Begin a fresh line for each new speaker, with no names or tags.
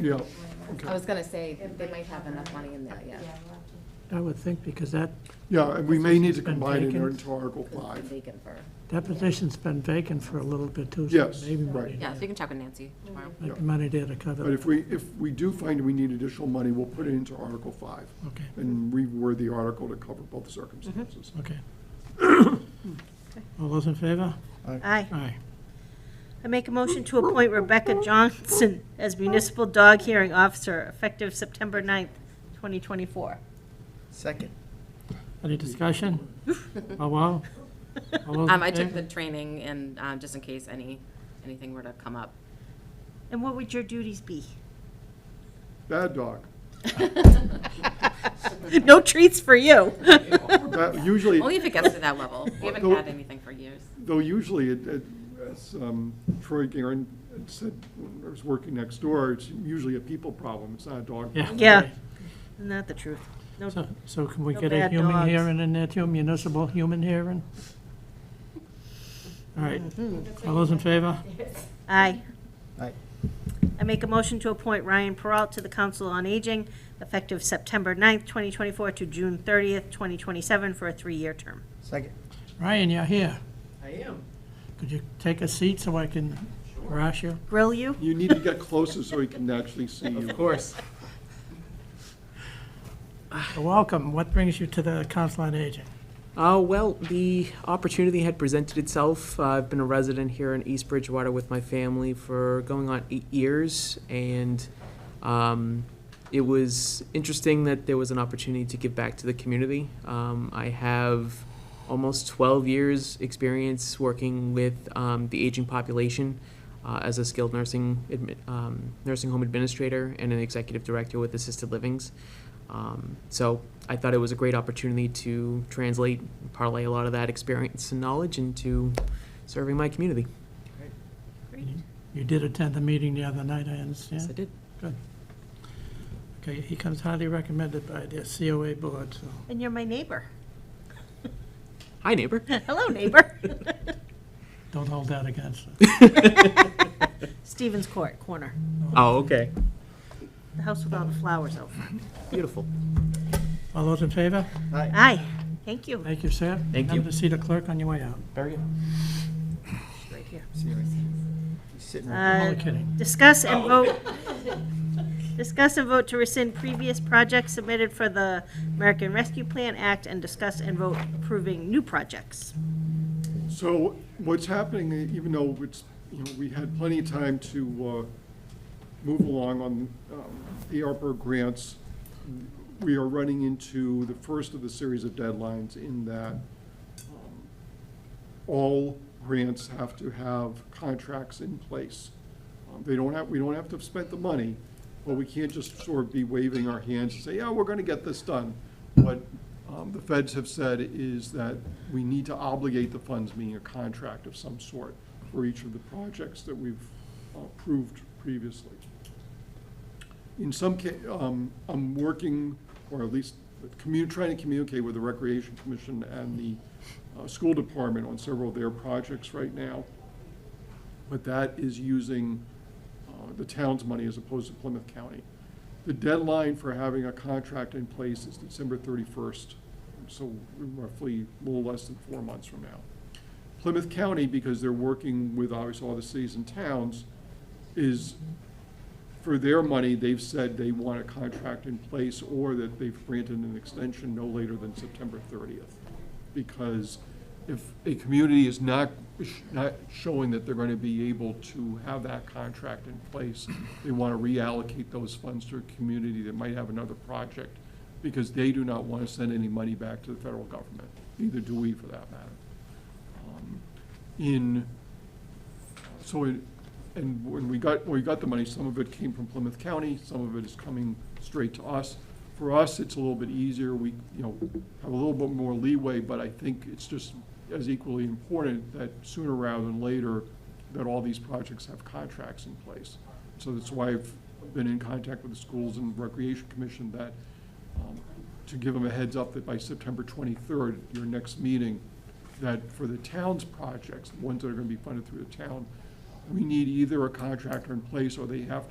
Yeah,
I
okay.
was gonna say, they might have enough money in there, yeah.
I would think, because that,
Yeah, and we may need to
Been
combine it
vacant?
into
Because
Article
it's been
Five.
vacant for,
that position's been vacant for a little bit too. so
Yes,
maybe
right.
money
Yeah, so you
there.
can check with Nancy tomorrow.
Might
yeah.
be money there to cover.
But if
that.
we, if we do find we need additional money, we'll put it into Article Five
Okay,
and reword the article to cover both circumstances.
okay. All those in favor?
Aye.
Aye.
I make a motion to appoint Rebecca Johnson as municipal dog hearing officer effective September 9th, 2024.
Second.
Any discussion? Oh, wow. All those
Um,
in
I took
favor?
the training and, um, just in case any, anything were to come up.
And what would your duties be?
Bad dog.
No treats for you.
That- Usually,
Only if it gets to that level. We haven't
No.
had anything for years.
Though usually, it- it- as um, Troy Garen said, when I was working next door, it's usually a people problem, it's not a dog.
Yeah.
problem.
Yeah, isn't that the truth? No,
So- So can we
No
get a
bad
human
dogs.
hearing in there too, municipal human hearing? All right, all those in favor?
Hmm. aye.
Aye.
I make a motion to appoint Ryan Peralt to the Council on Aging effective September 9th, 2024 to June 30th, 2027 for a three-year term.
Second.
Ryan, you're here.
I am.
Could you take a seat so I can harass you?
Grill you?
You need to get closer so he can actually see you.
Of course.
Welcome. What brings you to the Council on Aging?
Uh, well, the opportunity had presented itself. Uh, I've been a resident here in East Bridgewater with my family for going on eight years, and um, it was interesting that there was an opportunity to give back to the community. Um, I have almost 12 years' experience working with um, the aging population uh, as a skilled nursing admi- um, nursing home administrator and an executive director with assisted livings. Um, so I thought it was a great opportunity to translate, and parlay a lot of that experience and knowledge into serving my community.
You did attend the meeting the other night, I
Yes, I
understand.
did.
Okay, he comes highly recommended by the COA board, so.
And you're my neighbor.
Hi, neighbor.
Hello, neighbor.
Don't hold that against us.
Stevens Court, corner.
Oh, okay.
The house with all the flowers out front.
Beautiful.
All those in favor?
Aye.
Aye, thank you.
Thank you, sir.
Thank you.
Remember to see the clerk on your way out.
Very good.
Right here.
See you right there. He's sitting right
I'm only
Uh,
kidding.
Discuss and
Oh.
vote, discuss and vote to rescind previous projects submitted for the American Rescue Plan Act and discuss and vote approving new projects.
So what's happening, even though it's, you know, we had plenty of time to uh, move along on um, the ARPA grants, we are running into the first of the series of deadlines in that um, all grants have to have contracts in place. Um, They don't have, we don't have to have spent the money, but we can't just sort of be waving our hands and say, yeah, we're going to get this done. What um, the feds have said is that we need to obligate the funds, meaning a contract of some sort, for each of the projects that we've uh, approved previously. In some ca, um, I'm working, or at least commu, trying to communicate with the Recreation Commission and the, uh, school department on several of their projects right now. But that is using, uh, the town's money as opposed to Plymouth County. The deadline for having a contract in place is December thirty-first, so roughly a little less than four months from now. Plymouth County, because they're working with obviously all the cities and towns, is for their money, they've said they want a contract in place or that they've granted an extension no later than September 30th. Because if a community is not, not showing that they're going to be able to have that contract in place, they want to reallocate those funds to a community that might have another project because they do not want to send any money back to the federal government. Neither do we, for that matter. Um, In so, it- and when we got, when we got the money, some of it came from Plymouth County, some of it is coming straight to us. For us, it's a little bit easier, we, you know, have a little bit more leeway, but I think it's just as equally important that sooner rather than later, that all these projects have contracts in place. So that's why I've been in contact with the Schools and Recreation Commission that, um, to give them a heads up that by September 23rd, your next meeting, that for the town's projects, the ones that are going to be funded through the town, we need either a contractor in place or they have to.